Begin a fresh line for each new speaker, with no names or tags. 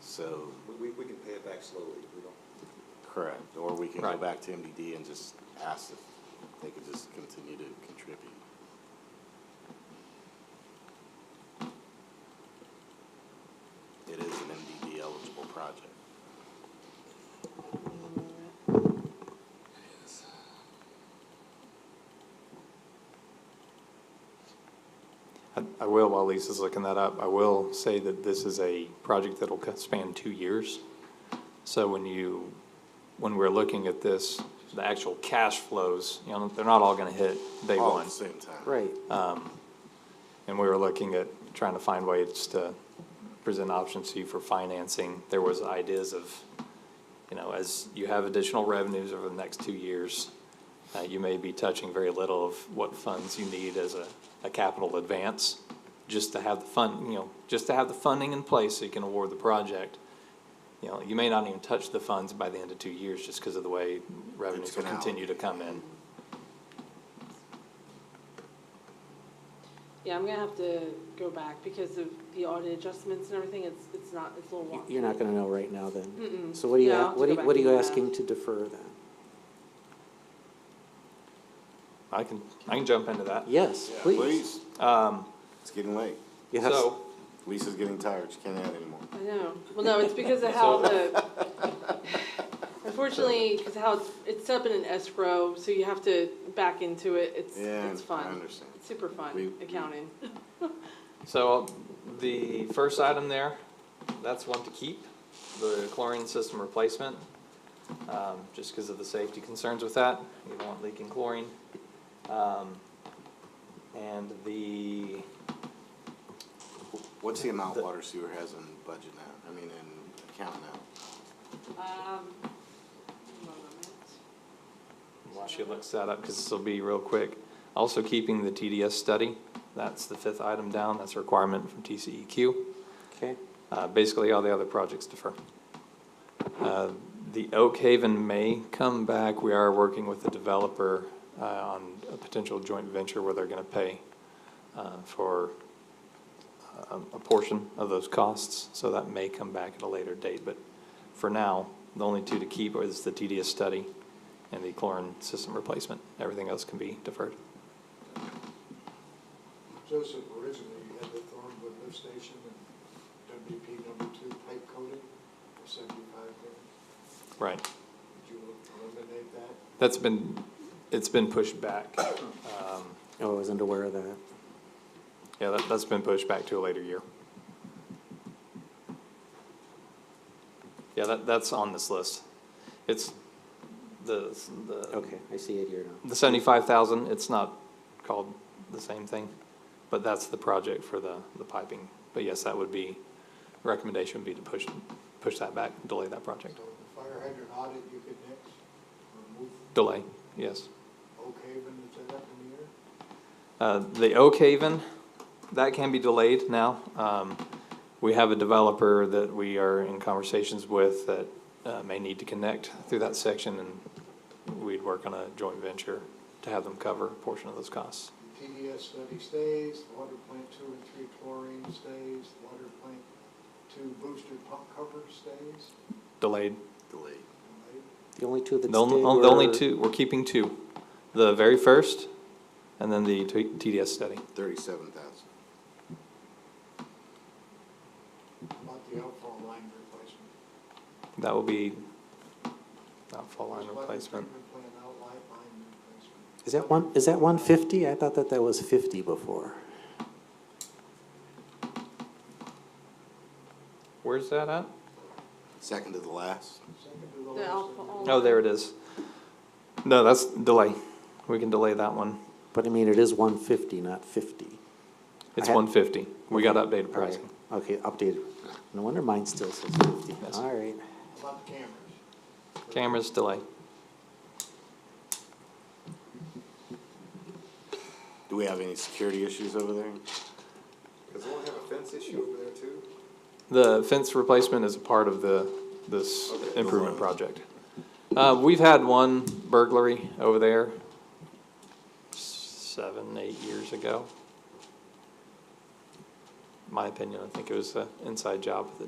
So,
We- We, we can pay it back slowly, we don't,
correct, or we can go
Right.
back to MDD and just ask if they could just continue to contribute. It is an MDD eligible project.
I- I will, while Lisa's looking that up, I will say that this is a project that'll co- span two years. So when you, when we're looking at this, the actual cash flows, you know, they're not all gonna hit day
All at
one.
the same time.
Right.
Um, And we were looking at trying to find ways to present options to you for financing. There was ideas of, you know, as you have additional revenues over the next two years, uh, you may be touching very little of what funds you need as a, a capital advance, just to have the fund, you know, just to have the funding in place so you can award the project. You know, you may not even touch the funds by the end of two years just because of the way revenues will
gonna out.
continue to come in.
Yeah, I'm gonna have to go back because of the audit adjustments and everything, it's, it's not, it's a little
You-
wonky.
You're not gonna know right now then?
Mm-mm.
So what are you,
Yeah, I'll
a-
have to
what
go
are,
back
what are
and
you
do that.
asking to defer then?
I can, I can jump into that.
Yes,
Yeah,
please.
Um,
It's getting late.
Yes.
so,
Lisa's getting tired, she can't add anymore.
I know, well, no, it's because of how the, unfortunately, because how it's, it's set up in an escrow, so you have to back into it, it's,
Yeah,
it's
I
fun.
understand.
It's super
We-
fun, accounting.
So uh, the first item there, that's one to keep, the chlorine system replacement, um, just because of the safety concerns with that. You don't want leaking chlorine. Um, and the,
What's the amount
The-
water sewer has in budget now, I mean, in account now?
Um, one moment.
while she looks that up, because this will be real quick. Also keeping the TDS study, that's the fifth item down, that's a requirement from E TCEQ.
Okay,
Uh, basically, all the other projects defer. Uh, The Oak Haven may come back. We are working with the developer uh, on a potential joint venture where they're going to pay uh, for um, a portion of those costs, so that may come back at a later date. But for now, the only two to keep is the TDS study and the chlorine system replacement. Everything else can be deferred.
Joseph, originally you had the Thornwood lift station and WP number two pipe coating for seventy-five grand.
Right.
Did you eliminate that?
That's been, it's been pushed back. Um,
oh, I wasn't aware of that.
Yeah, that, that's been pushed back to a later year. Yeah, that, that's on this list. It's the, the,
Okay, I see it here now.
the seventy-five thousand, it's not called the same thing, but that's the project for the, the piping. But yes, that would be, recommendation would be to push, push that back, delay that project.
So the fire hydrant audit you could next, remove
Delay, yes.
Oak Haven, is that up in the air?
Uh, The Oak Haven, that can be delayed now. Um, We have a developer that we are in conversations with that uh, may need to connect through that section, and we'd work on a joint venture to have them cover a portion of those costs.
The TDS study stays, the water plant two and three chlorine stays, the water plant two booster pump cover stays.
Delayed.
Delayed.
and they-
The only two that
The only,
stayed
the only
were-
two, we're keeping two. The very first, and then the T- TDS study.
Thirty-seven thousand.
About the outfall line replacement.
That will be not fall line
Wastewater
replacement.
treatment plant outlet line replacement.
Is that one, is that one fifty? I thought that that was fifty before.
Where's that at?
Second to the last?
Second to the
The
last. thing.
alcohol.
Oh, there it is. No, that's delay. We can delay that one.
But I mean, it is one fifty, not fifty.
It's
I had-
one fifty. We got updated
All right,
pricing.
okay, updated. No wonder mine still says fifty.
Yes.
All right.
About the cameras.
Cameras delay.
Do we have any security issues over there?
Does one have a fence issue over there too?
The fence replacement is a part of the, this
Okay.
improvement project. Uh, we've had one burglary over there seven, eight years ago. My opinion, I think it was an inside job that